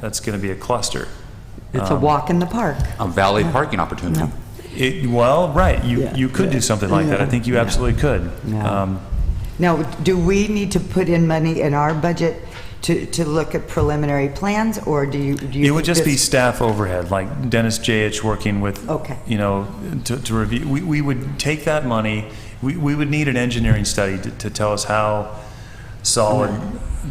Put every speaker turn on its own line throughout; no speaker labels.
that's going to be a cluster.
It's a walk in the park.
A valid parking opportunity.
It, well, right, you,
Yeah.
you could do something like that. I think you
Yeah.
absolutely could.
Yeah.
Um,
Now, do we need to put in money in our budget to, to look at preliminary plans, or do you? do you
It would
think
just be
this-
staff overhead, like Dennis J.H. working with,
Okay.
you know, to, to review. We, we would take that money, we, we would need an engineering study to, to tell us how solid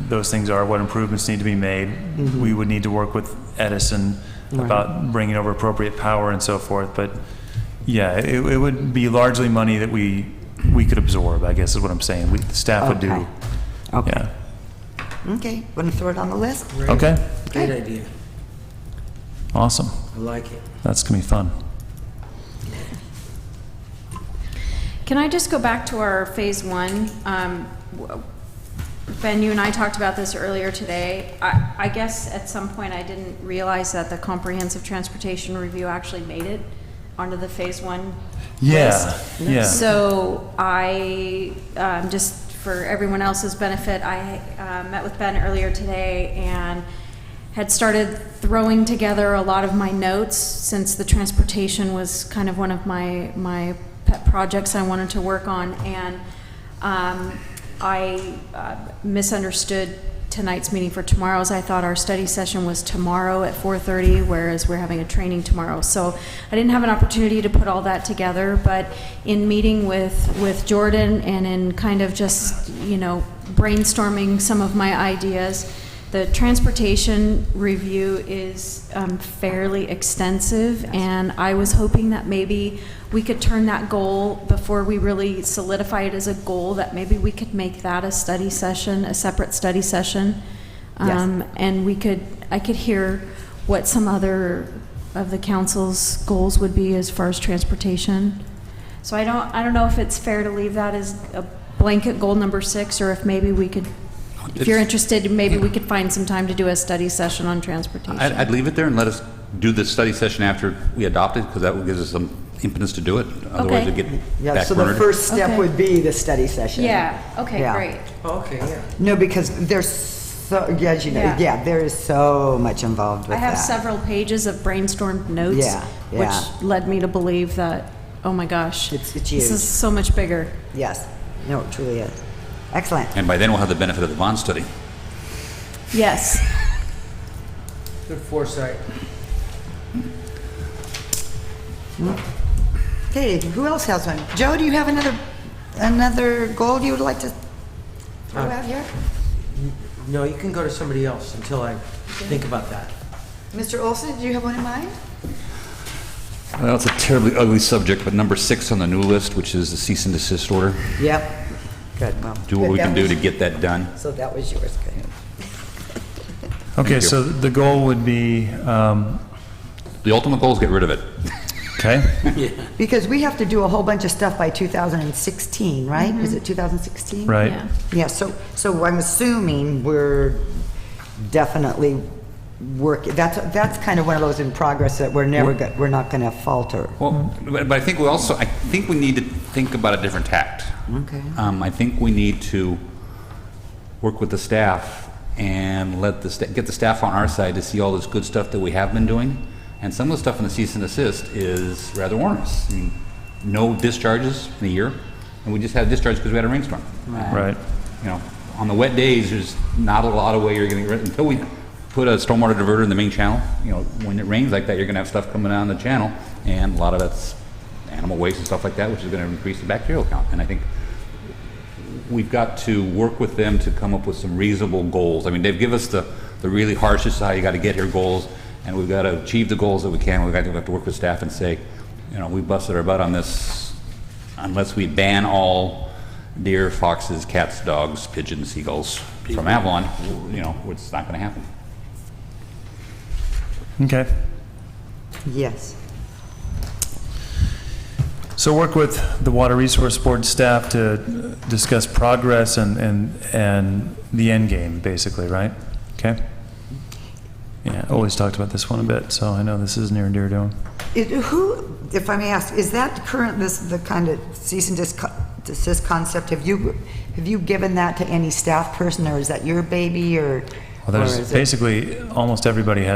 those things are, what improvements need to be made. We would need to work with Edison about bringing over appropriate power and so forth, but yeah, it, it would be largely money that we, we could absorb, I guess is what I'm saying. We, the staff would do,
Okay. Okay,
yeah.
okay, want to throw it on the list?
Okay,
Great idea.
awesome.
I like it.
That's gonna be fun.
Can I just go back to our phase one? Um, w- Ben, you and I talked about this earlier today. I, I guess at some point I didn't realize that the comprehensive transportation review actually made it onto the phase one
Yeah,
list.
yeah.
So I, um, just for everyone else's benefit, I uh, met with Ben earlier today and had started throwing together a lot of my notes since the transportation was kind of one of my, my pet projects I wanted to work on. And um, I uh, misunderstood tonight's meeting for tomorrow's. I thought our study session was tomorrow at 4:30, whereas we're having a training tomorrow. So I didn't have an opportunity to put all that together, but in meeting with, with Jordan and in kind of just, you know, brainstorming some of my ideas, the transportation review is um, fairly extensive, and I was hoping that maybe we could turn that goal before we really solidify it as a goal, that maybe we could make that a study session, a separate study session.
Yes.
Um, And we could, I could hear what some other of the council's goals would be as far as transportation. So I don't, I don't know if it's fair to leave that as a blanket goal number six, or if maybe we could, if you're
It's-
interested, maybe we could find some time to do a study session on transportation.
I'd, I'd leave it there and let us do this study session after we adopt it, because that will give us some impetus to do it. Otherwise,
Okay.
it'd get
Yeah, so the
backburnered.
first step
Okay.
would be the study session.
Yeah, okay,
Yeah.
great.
Oh, Okay, yeah.
No, because there's so, yeah, as you know,
Yeah.
yeah, there is so much involved with
I
that.
have several pages of brainstormed notes,
Yeah, yeah.
which led me to believe that, oh my gosh.
It's- it's
This
huge.
is so much bigger.
Yes, no, it truly is. Excellent.
And by then, we'll have the benefit of the bond study.
Yes.
Good foresight.
Okay, who else has one? Joe, do you have another, another goal you would like to throw
Uh,
out here?
No, you can go to somebody else until I think about that.
Mr. Olson, do you have one in mind?
Well, it's a terribly ugly subject, but number six on the new list, which is the cease and desist order,
Yep. Good, well.
do what
good,
we
that
can do
was-
to get that done.
So that was yours, good.
Okay,
you.
so the goal would be, um,
The ultimate goal is get rid of it.
okay,
Because we have to do a whole bunch of stuff by 2016, right? Is it 2016?
right?
Yeah.
Yeah, so, so I'm assuming we're definitely working, that's, that's kind of one of those in progress that we're never, go- we're not going to falter.
Well, but but I think we also, I think we need to think about a different tact.
Okay.
Um, I think we need to work with the staff and let the, sta- get the staff on our side to see all this good stuff that we have been doing. And some of the stuff in the cease and desist is rather onerous. I mean, no discharges in a year, and we just had a discharge because we had a rainstorm.
Right.
You know, on the wet days, there's not a lot of way you're getting rid, until we put a stormwater diverter in the main channel, you know, when it rains like that, you're gonna have stuff coming down the channel, and a lot of that's animal waste and stuff like that, which is gonna increase the bacterial count. And I think we've got to work with them to come up with some reasonable goals. I mean, they've given us the, the really harshest, how you got to get here goals, and we've got to achieve the goals that we can. We've got to, we have to work with staff and say, you know, we busted our butt on this unless we ban all deer, foxes, cats, dogs, pigeons, seagulls from Avalon, you know, it's not going to happen.
Okay.
Yes.
So work with the Water Resource Board staff to uh, discuss progress and, and, and the end game, basically, right? Okay? Yeah, I always talked about this one a bit, so I know this is near and dear to him.
It- Who, if I may ask, is that current, this, the kind of cease and desist- desist concept, have you, have you given that to any staff person, or is that your baby, or
Well, there's
Where is it?
basically, almost everybody has